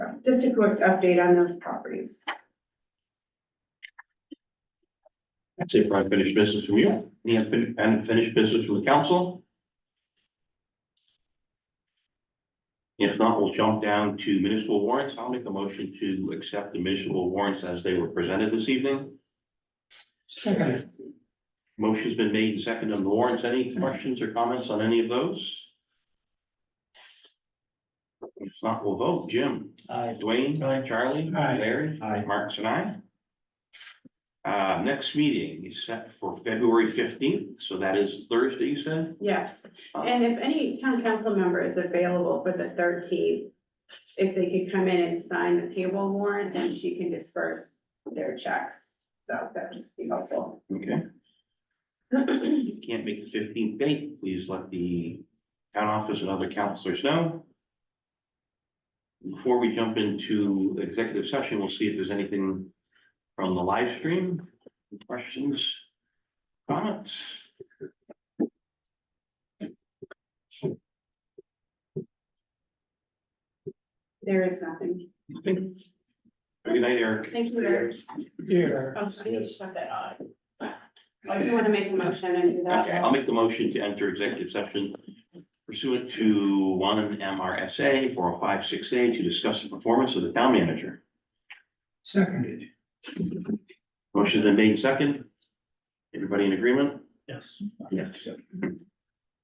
just a quick update on those properties. That's it for unfinished business from you. Any unfin- unfinished business from the council? If not, we'll jump down to municipal warrants. I'll make a motion to accept the municipal warrants as they were presented this evening. Second. Motion's been made and seconded on the warrants. Any questions or comments on any of those? If not, we'll vote. Jim? Aye. Dwayne. Aye. Charlie. Aye. Larry. Aye. Marks and I. Uh, next meeting is set for February fifteenth, so that is Thursday, you said? Yes, and if any town council member is available for the thirteenth, if they could come in and sign the payroll warrant, then she can disperse their checks. So that would just be helpful. Okay. If you can't make the fifteenth date, please let the town office and other counselors know. Before we jump into executive session, we'll see if there's anything from the live stream, questions, comments. There is nothing. Good night, Eric. Thank you, Eric. Here. Oh, so I need to shut that off. Oh, you want to make a motion and do that? Okay, I'll make the motion to enter executive session pursuant to one MRSA four oh five six A to discuss the performance of the town manager. Seconded. Motion's been made second. Everybody in agreement? Yes. Yes.